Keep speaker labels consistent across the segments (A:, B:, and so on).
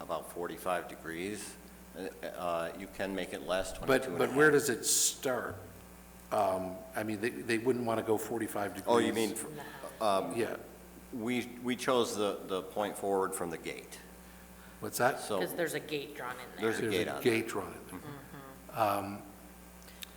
A: about 45 degrees. Uh, uh, You can make it less, 22
B: But,
A: and a
B: but where
A: half.
B: does it start? Um, I mean, they, they wouldn't want to go 45 degrees.
A: Oh, you mean, um,
B: Yeah,
A: we, we chose the, the point forward from the gate,
B: what's that?
A: so
C: Because there's a gate drawn in there.
A: there's a gate on Oh.
B: There's a
A: there. Mm-hmm.
B: gate drawn in there. Um,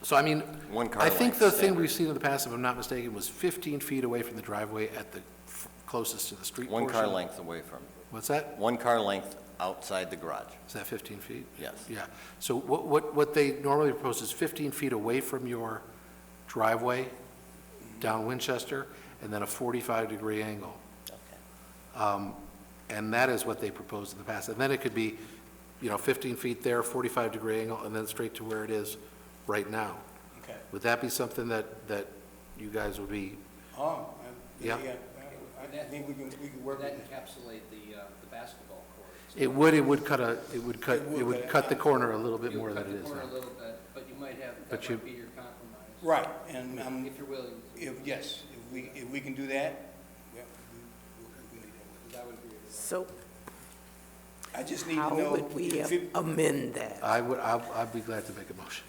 B: So I mean,
A: One car
B: I think
A: length
B: the thing
A: standard.
B: we've seen in the past, if I'm not mistaken, was 15 feet away from the driveway at the f- closest to the street portion.
A: One car length away from,
B: What's that?
A: one car length outside the garage,
B: Is that 15 feet?
A: yes.
B: Yeah. So what, what, what they normally propose is 15 feet away from your driveway down Winchester, and then a 45-degree angle.
A: Okay.
B: Um, And that is what they proposed in the past. And then it could be, you know, 15 feet there, 45-degree angle, and then straight to where it is right now.
D: Okay.
B: Would that be something that, that you guys would be,
D: Oh,
B: Yeah.
D: I- yeah, I I think we can, we can work with
E: Would that
D: it.
E: encapsulate the, uh, the basketball court?
B: it would, it would cut a, it would cut,
D: It would,
B: it would
D: but-
B: cut the corner a little bit
E: You
B: more
E: cut
B: than it
E: the
B: is
E: corner
B: now.
E: a little bit, but you might have,
B: But
E: that
B: you-
E: might be your compromise,
D: Right, and, um,
E: if you're willing, to-
D: if, yes, if we, if we can do that, yeah, we- we we can do
E: that would be. your-
F: So
D: that. I just need to
F: how
D: know.
F: would we
D: if it-
F: amend that?
B: I would, I'd, I'd be glad to make a motion.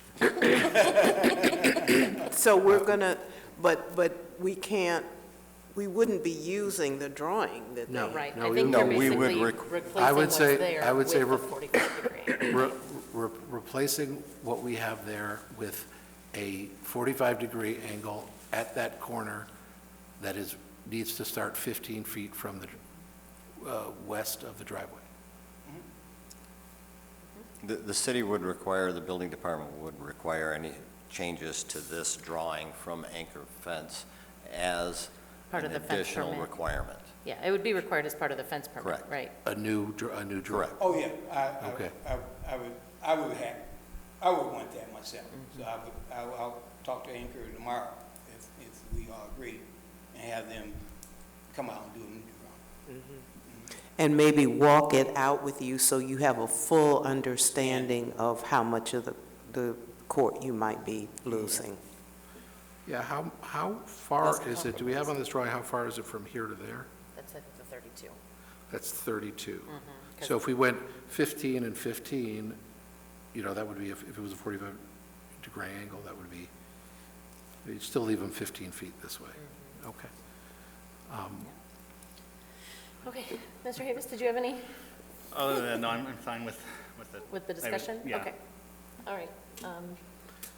F: So we're gonna, but, but we can't, we wouldn't be using the drawing that
B: No.
F: they.
C: Right,
B: No,
C: I
B: we
C: think
B: would-
C: you're
A: No, we would
C: basically
A: requ-
C: replacing
B: I would
C: what's
B: say-
C: there
B: I would
C: with
B: say
C: the
B: rep-
C: 45 degree.
B: Re- re- Replacing what we have there with a 45-degree angle at that corner that is, needs to start 15 feet from the, uh, west of the driveway.
A: The, the city would require, the building department would require any changes to this drawing from anchor fence as
C: Part of the
A: An
C: fence
A: additional
C: permit.
A: requirement.
C: Yeah, it would be required as part of the fence permit,
A: Correct.
C: right?
B: A new, dr- a new drawing.
A: Correct.
D: Oh, yeah, I, I-
B: Okay.
D: I, I would, I would have, I would want that myself. So I would, I- I'll talk to Anchor tomorrow if, if we all agree and have them come out and do a new drawing.
F: Mm-hmm. And maybe walk it out with you so you have a full understanding of how much of the, the court you might be losing.
B: Yeah, how, how far is it, do we have on this drawing, how far is it from here to there?
C: That's, I think, the 32.
B: That's 32.
C: Mhm, 'cause-
B: So if we went 15 and 15, you know, that would be, if if it was a 45-degree angle, that would be, you'd still leave them 15 feet this way. Okay. Um,
C: Okay, Mr. Davis, did you have any
G: Other than, no, I'm I'm fine with, with it.
C: with the
G: I was-
C: discussion?
G: Yeah.
C: Okay, all right. Um,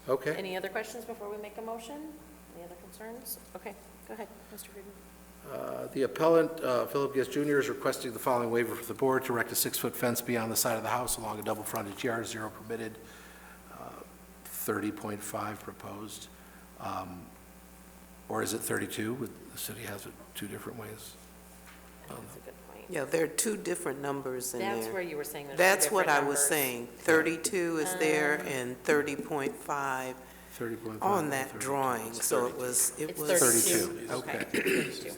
B: Okay.
C: Any other questions before we make a motion? Any other concerns? Okay, go ahead, Mr. Friedman.
B: Uh, The appellant, uh, Philip Guest Jr., is requesting the following waiver for the board to erect a six-foot fence beyond the side of the house along a double frontage yard, zero permitted, uh, 30.5 proposed. Um, Or is it 32? Would- The city has it two different ways.
C: That's a good point.
F: Yeah, there are two different numbers Um, in
C: That's where
F: there.
C: you were saying there's two
F: That's what
C: different
F: I was
C: numbers. Uh,
F: saying. Thirty-two is there and thirty point five
B: 30.5.
F: on that
B: 32.
F: drawing, so it was, it
C: It's
F: was.
C: 32.
B: 32,
C: Okay.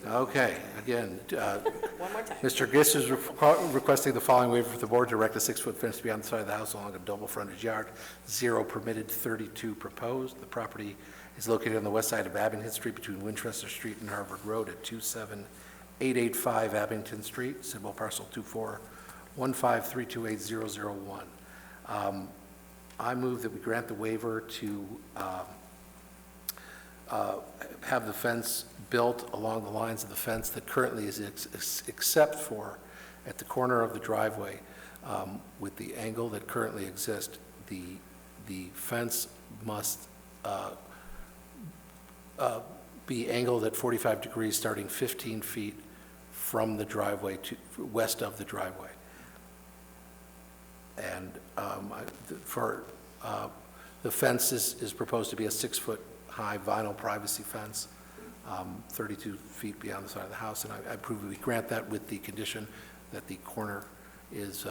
B: Okay, again, uh,
C: One more time.
B: Mr. Gist is requ- requesting the following waiver for the board to erect a six-foot fence beyond the side of the house along a double frontage yard, zero permitted, 32 proposed. The property is located on the west side of Abington Street between Winchester Street and Harvard Road at 27885 Abington Street, symbol parcel 24153280001. Um, I move that we grant the waiver to um, uh, have the fence built along the lines of the fence that currently is ex- ex- except for at the corner of the driveway um, with the angle that currently exists, the, the fence must uh, uh, be angled at 45 degrees, starting 15 feet from the driveway to, west of the driveway. And um, I- the- for, uh, the fence is, is proposed to be a six-foot-high vinyl privacy fence, um, 32 feet beyond the side of the house, and I I approve we grant that with the condition that the corner is uh,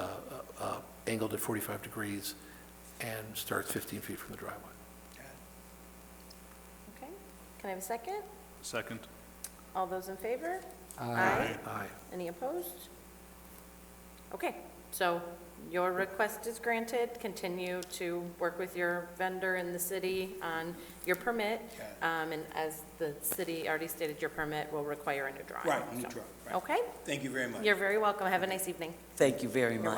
B: uh, uh, angled at 45 degrees and starts 15 feet from the driveway.
C: Okay, can I have a second?
G: Second.
C: All those in favor?
B: Aye.
C: Any opposed? Okay, so your request is granted, continue to work with your vendor in the city on your permit, um, and as the city already stated, your permit will require a new drawing.
D: Right, new
C: so.
D: drawing, right.
C: Okay,
D: Thank you very much.
C: you're very welcome, have a nice evening.
H: Thank you very much.